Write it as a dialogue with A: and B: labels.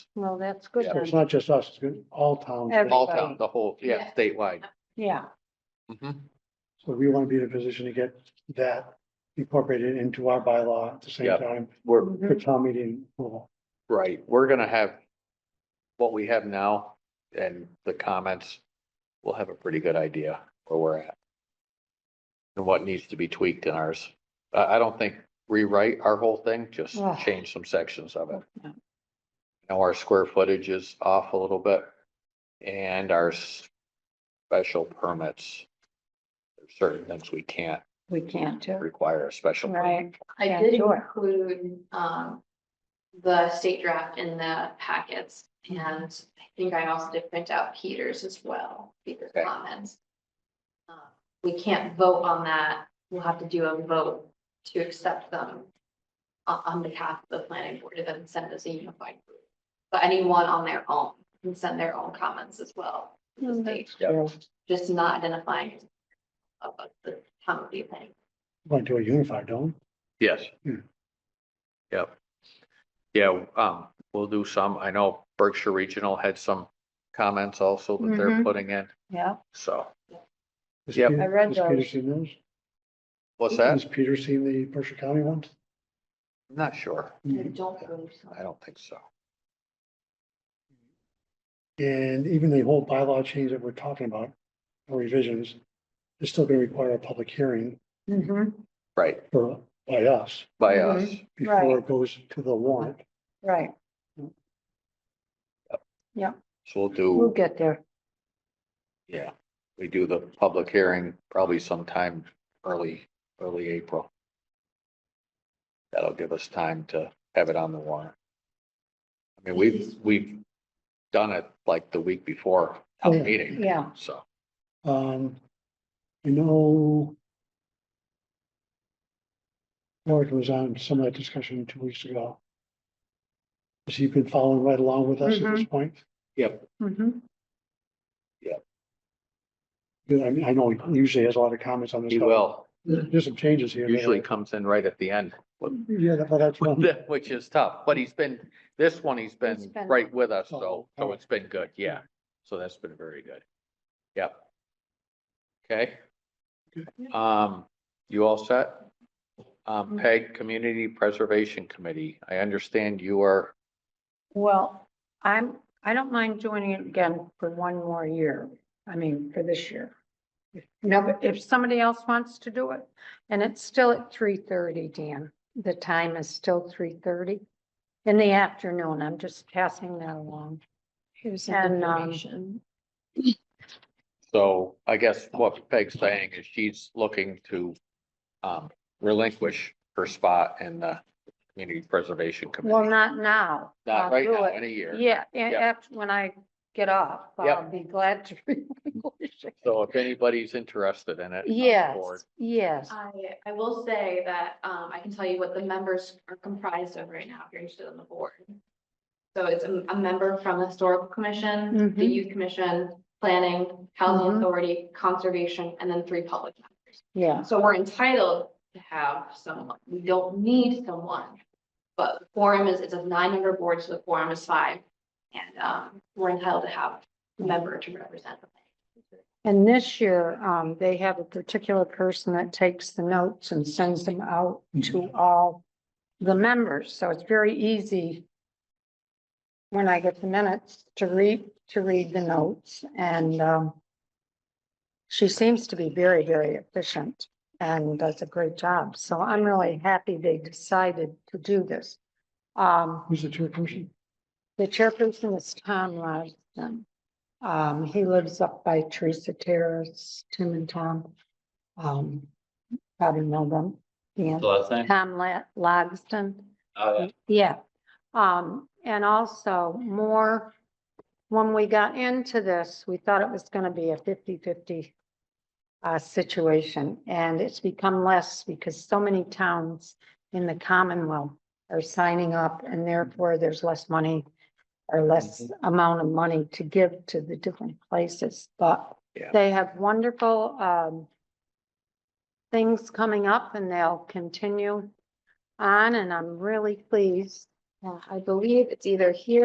A: Well, that's good
B: Yeah.
A: then.
C: It's not just us, it's good, all towns.
A: Every-
B: all town, the whole, yeah,
D: Yeah.
B: statewide.
A: Yeah,
B: Mhm.
C: So we want to be in a position to get that incorporated into our bylaw at the same
B: Yeah.
C: time
B: We're,
A: Mm-hmm.
C: for town meeting. approval.
B: right, we're gonna have what we have now and the comments. We'll have a pretty good idea where we're at. And what needs to be tweaked in ours. I, I don't think rewrite our whole thing, just
A: Ugh.
B: change some sections of it.
A: Yeah.
B: Now our square footage is off a little bit and our special permits. There's certain things we can't
A: we can't do,
B: require a special. permit.
A: right?
D: I
A: Yeah,
D: did
A: sure.
D: include, um, the state draft in the packets and I think I also did print out Peters as well, Peter's
B: Okay.
D: comments. Uh, We can't vote on that. We'll have to do a vote to accept them on, on behalf of the planning board and then send us a unified group. But anyone on their own can send their own comments as well to the
A: Mm,
D: state,
A: that's
B: Yeah.
A: true.
D: just not identifying of of the town of the planning.
C: Want to do a unified, don't?
B: Yes.
C: Hmm.
B: Yep. Yeah, um, we'll do some. I know Berkshire Regional had some comments also that they're
A: Mhm.
B: putting in,
A: Yeah,
B: so.
C: Has
B: Yep.
C: Peter-
A: I read
C: has
A: those.
C: Peter seen those?
B: What's
C: Has
B: that?
C: Peter seen the Berkshire County ones?
B: I'm Not sure.
D: I
A: Mm-hmm.
D: don't believe so.
B: I don't think so.
C: And even the whole bylaw change that we're talking about, or revisions, is still going to require a public hearing
A: hmm
B: Right,
C: for, by us,
B: by
A: Mm-hmm.
B: us.
C: before it goes to the warrant.
A: right,
B: So we'll
A: we'll
B: do,
A: get there.
B: yeah, we do the public hearing probably sometime early, early April. That'll give us time to have it on the warrant. I mean, we've, we've done it like the week before
C: Oh, yeah.
B: town meeting,
A: Yeah,
B: so.
C: Um, you know. Warwick was on some of that discussion two weeks ago. Has he been following right along with us at this point?
B: Yep,
A: hmm
C: Because I mean, I know he usually has a lot of comments on this.
B: he
C: stuff.
B: will.
C: There's some changes here. and there.
B: Usually comes in right at the end,
C: Yeah, that- but that's one.
B: which is tough, but he's been, this one, he's
A: He's
B: been
A: been-
B: right with us, so,
C: Oh,
B: so
C: oh.
B: it's been good, yeah. So that's been very good. Yep. Okay. Um, you all set?
A: Mm-hmm.
B: Um, Peg, Community Preservation Committee, I understand you are,
A: well, I'm, I don't mind doing it again for one more year, I mean, for this year. Now, but if somebody else wants to do it, and it's still at three thirty, Dan, the time is still three thirty in the afternoon, I'm just passing that along.
D: Here's
A: some And, um,
B: so I guess what Peg's saying is she's looking to um, relinquish her spot in the Community Preservation Committee.
A: Well, not now. I'll
B: Not right
A: do
B: now,
A: it.
B: in a year.
A: Yeah, and
B: Yep.
A: after, when I get off, I'll
B: Yep.
A: be glad to. relinquish it.
B: So if anybody's interested in it. on the
A: Yes,
B: board,
A: yes,
D: I, I will say that, um, I can tell you what the members are comprised of right now, if you're interested in the board. So it's a, a member from the historical commission, the
A: Mhm.
D: youth commission, planning, housing
A: Mhm.
D: authority, conservation, and then three public members.
A: yeah,
D: So we're entitled to have someone, we don't need someone. But the quorum is, it's a nine-member board, so the quorum is five, and, um, we're entitled to have a member to represent. the
A: and this year, um, they have a particular person that takes the notes and sends them out to all the members, so it's very easy when I get the minutes to read, to read the notes, and, um, she seems to be very, very efficient and does a great job, so I'm really happy they decided to do this. Um,
C: Who's the chairperson?
A: the chairperson is Tom Robinson. Um, he lives up by Teresa Terrace, Tim and Tom. Um, probably know them. Yeah. Tom La- Logston. Yeah. Um, and also more, when we got into this, we thought it was gonna be a 50-50 uh, situation, and it's become less because so many towns in the Commonwealth are signing up, and therefore there's less money or less amount of money to give to the different places, but
B: Yeah.
A: they have wonderful, um, things coming up, and they'll continue on, and I'm really pleased. Uh, I believe it's either here